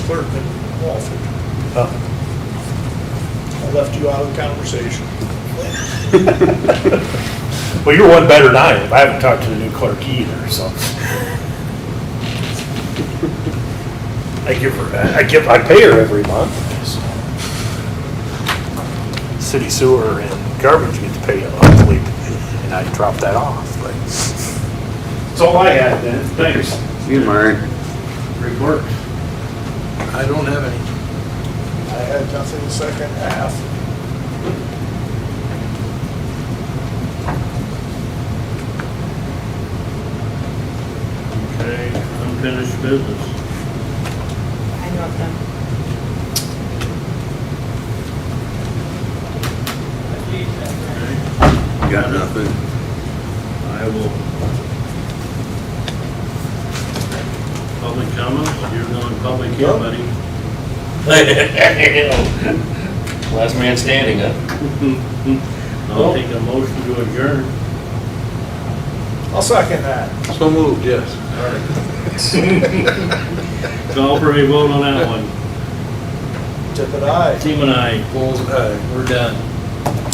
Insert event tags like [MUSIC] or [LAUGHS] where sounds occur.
clerk in Walford. Oh. I left you out of the conversation. [LAUGHS] Well, you're one better than I am. I haven't talked to the new clerk either, so. I give her, I give, I pay her every month. so. City sewer and garbage get to pay monthly, and I drop that off, but. That's all I had then. Thanks. You, Murray. Great work. I don't have any. I had nothing second half. Okay, unfinished business. I love them. Okay, Got nothing. I will. Public comments, you're non-public here, buddy. [LAUGHS] Last man standing, huh? [LAUGHS] I'll take a motion to adjourn. I'll second that. So moved, yes. Call for a vote on that one. Tip it aye. Team and I. Bull's eye, we're done.